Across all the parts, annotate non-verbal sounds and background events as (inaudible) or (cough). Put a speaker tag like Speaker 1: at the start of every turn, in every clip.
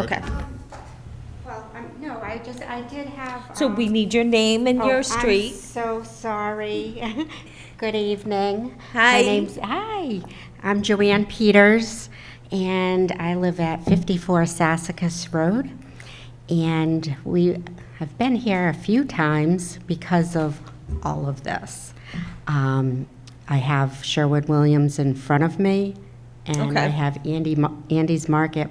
Speaker 1: Okay,
Speaker 2: Well, um, no, I just, I did have.
Speaker 1: so
Speaker 2: um,
Speaker 1: we need your name and
Speaker 2: oh,
Speaker 1: your
Speaker 2: I'm
Speaker 1: street.
Speaker 2: so sorry. (laughs) Good evening.
Speaker 1: Hi.
Speaker 2: My name's, hi, I'm Joanne Peters, and I live at 54 Sassacus Road. And we have been here a few times because of all of this. Um, I have Sherwood-Williams in front of me, and I
Speaker 1: Okay.
Speaker 2: have Andy, Mar- Andy's Market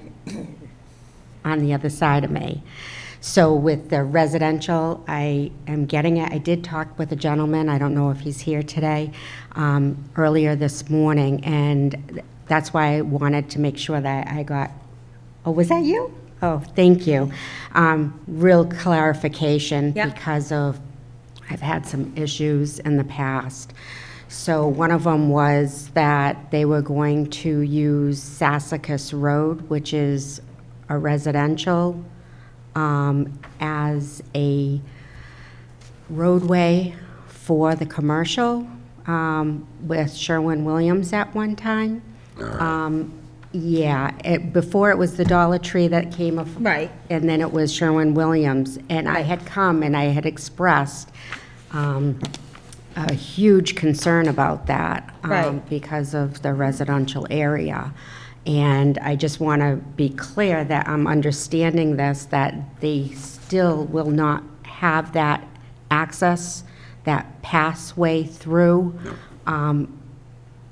Speaker 2: on the other side of me. So with the residential, I am getting it. I did talk with a gentleman, I don't know if he's here today, um, earlier this morning, and that's why I wanted to make sure that I got, oh, was that you? Oh, thank you. Um, Real clarification
Speaker 1: Yep.
Speaker 2: because of, I've had some issues in the past. So one of them was that they were going to use Sassacus Road, which is a residential, um, as a roadway for the commercial um, with Sherwin-Williams at one time. Um, Yeah, it, before it was the Dollar Tree that came af-
Speaker 1: Right.
Speaker 2: and then it was Sherwin-Williams. And I had come and I had expressed um, a huge concern about that. um,
Speaker 1: Right.
Speaker 2: Because of the residential area. And I just want to be clear that I'm understanding this, that they still will not have that access, that pathway through. Um,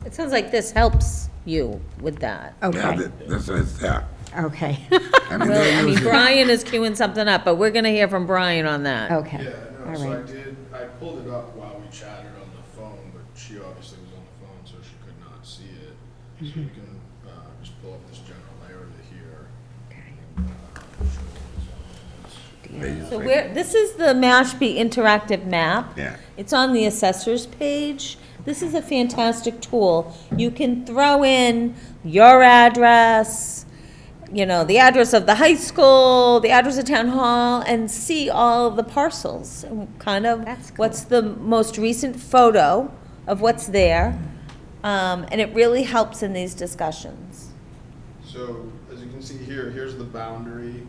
Speaker 3: It sounds like this helps you with that.
Speaker 4: Yeah,
Speaker 2: Okay,
Speaker 4: that- that's, that's, yeah.
Speaker 2: okay, (laughs)
Speaker 4: I mean,
Speaker 3: Really, I
Speaker 4: they're
Speaker 3: mean,
Speaker 4: (laughs) using,
Speaker 3: Brian is queuing something up, but we're gonna hear from Brian on that.
Speaker 2: okay.
Speaker 5: Yeah, no,
Speaker 2: All
Speaker 5: so I
Speaker 2: right.
Speaker 5: did, I pulled it up while we chatted on the phone, but she obviously was on the phone, so she could not see it. So we can, uh, just pull up this general area here. uh,
Speaker 4: they're using-
Speaker 3: So where, this is the Mashpee interactive map.
Speaker 4: Yeah.
Speaker 3: It's on the assessor's page. This is a fantastic tool. You can throw in your address, you know, the address of the high school, the address of town hall, and see all of the parcels. and Kind of,
Speaker 2: That's cool.
Speaker 3: what's the most recent photo of what's there? Um, and it really helps in these discussions.
Speaker 5: So, as you can see here, here's the boundary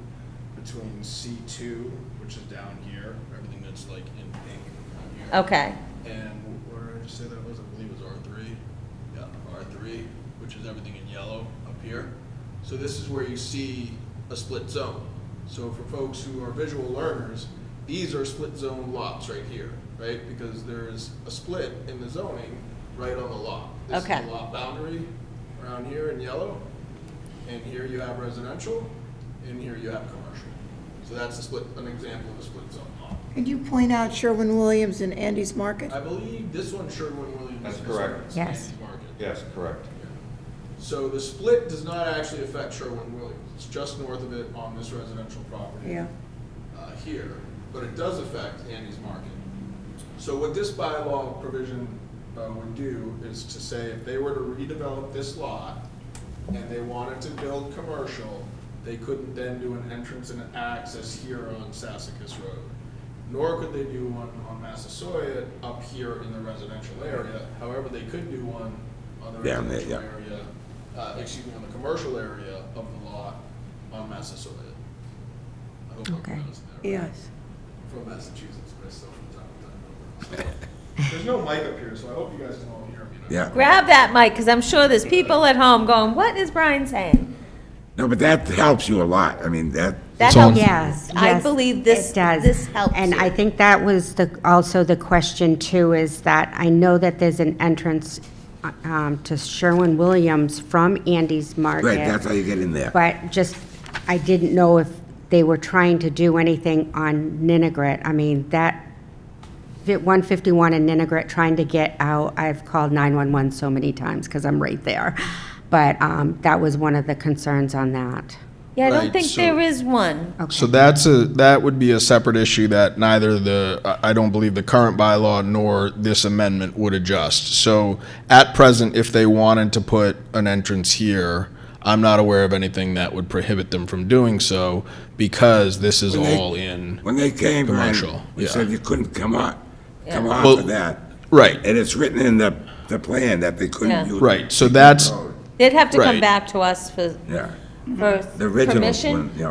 Speaker 5: between C two, which is down here, everything that's like in pink here.
Speaker 3: Okay,
Speaker 5: And where did I just say that was? I believe it was R three. Yeah, R three, which is everything in yellow up here. So this is where you see a split zone. So for folks who are visual learners, these are split zone lots right here, right? Because there's a split in the zoning right on the lot. This is
Speaker 3: Okay.
Speaker 5: the lot boundary around here in yellow. And here you have residential, and here you have commercial. So that's a split, an example of a split zone lot.
Speaker 6: Could you point out Sherwin-Williams and Andy's Market?
Speaker 5: I believe this one, Sherwin-Williams.
Speaker 7: That's
Speaker 5: is
Speaker 7: correct.
Speaker 5: on
Speaker 2: Yes.
Speaker 5: Sandy's Market.
Speaker 7: Yes, correct.
Speaker 5: So the split does not actually affect Sherwin-Williams. It's just north of it on this residential property.
Speaker 6: Yeah.
Speaker 5: uh, Here, but it does affect Andy's Market. So what this bylaw provision uh, would do is to say if they were to redevelop this lot and they wanted to build commercial, they couldn't then do an entrance and an access here on Sassacus Road. Nor could they do one on Massasoit up here in the residential area. However, they could do one on the
Speaker 4: Down there,
Speaker 5: residential
Speaker 4: yeah.
Speaker 5: area, uh, excuse me, on the commercial area of the lot on Massasoit. I hope I'm
Speaker 2: Okay.
Speaker 5: pronouncing that right
Speaker 6: Yes.
Speaker 5: from Massachusetts, but I still from time to time. There's no mic up here, so I hope you guys can all hear me. now.
Speaker 4: Yeah,
Speaker 3: grab that mic, because I'm sure there's people at home going, what is Brian saying?
Speaker 4: no, but that helps you a lot. I mean, that,
Speaker 3: That
Speaker 8: It's on-
Speaker 3: helps
Speaker 2: Yes,
Speaker 3: I
Speaker 2: yes,
Speaker 3: believe this-
Speaker 2: it does.
Speaker 3: this helps
Speaker 2: And I
Speaker 3: you.
Speaker 2: think that was the, also the question too, is that I know that there's an entrance uh, um, to Sherwin-Williams from Andy's Market.
Speaker 4: right, that's how you get in there.
Speaker 2: But just, I didn't know if they were trying to do anything on Ninnegrit. I mean, that, fi- 151 in Ninnegrit, trying to get out, I've called 911 so many times because I'm right there. But um, that was one of the concerns on that.
Speaker 3: Yeah, I don't
Speaker 5: Right,
Speaker 3: think
Speaker 5: so-
Speaker 3: there is one.
Speaker 2: Oh.
Speaker 5: So that's a, that would be a separate issue that neither the, I- I don't believe the current bylaw nor this amendment would adjust. So at present, if they wanted to put an entrance here, I'm not aware of anything that would prohibit them from doing so because this is
Speaker 4: When they-
Speaker 5: all in.
Speaker 4: When they came,
Speaker 5: Commercial,
Speaker 4: Brian, we
Speaker 5: yeah.
Speaker 4: said you couldn't come on, come off
Speaker 5: Well-
Speaker 4: of that.
Speaker 5: Right,
Speaker 4: And it's written in the, the plan that they
Speaker 3: Yeah.
Speaker 4: couldn't use.
Speaker 5: right. So that's,
Speaker 4: Oh,
Speaker 3: They'd have to come
Speaker 5: Right.
Speaker 3: back to us for,
Speaker 4: Yeah,
Speaker 3: for
Speaker 4: the original
Speaker 3: permission.
Speaker 4: one, yeah.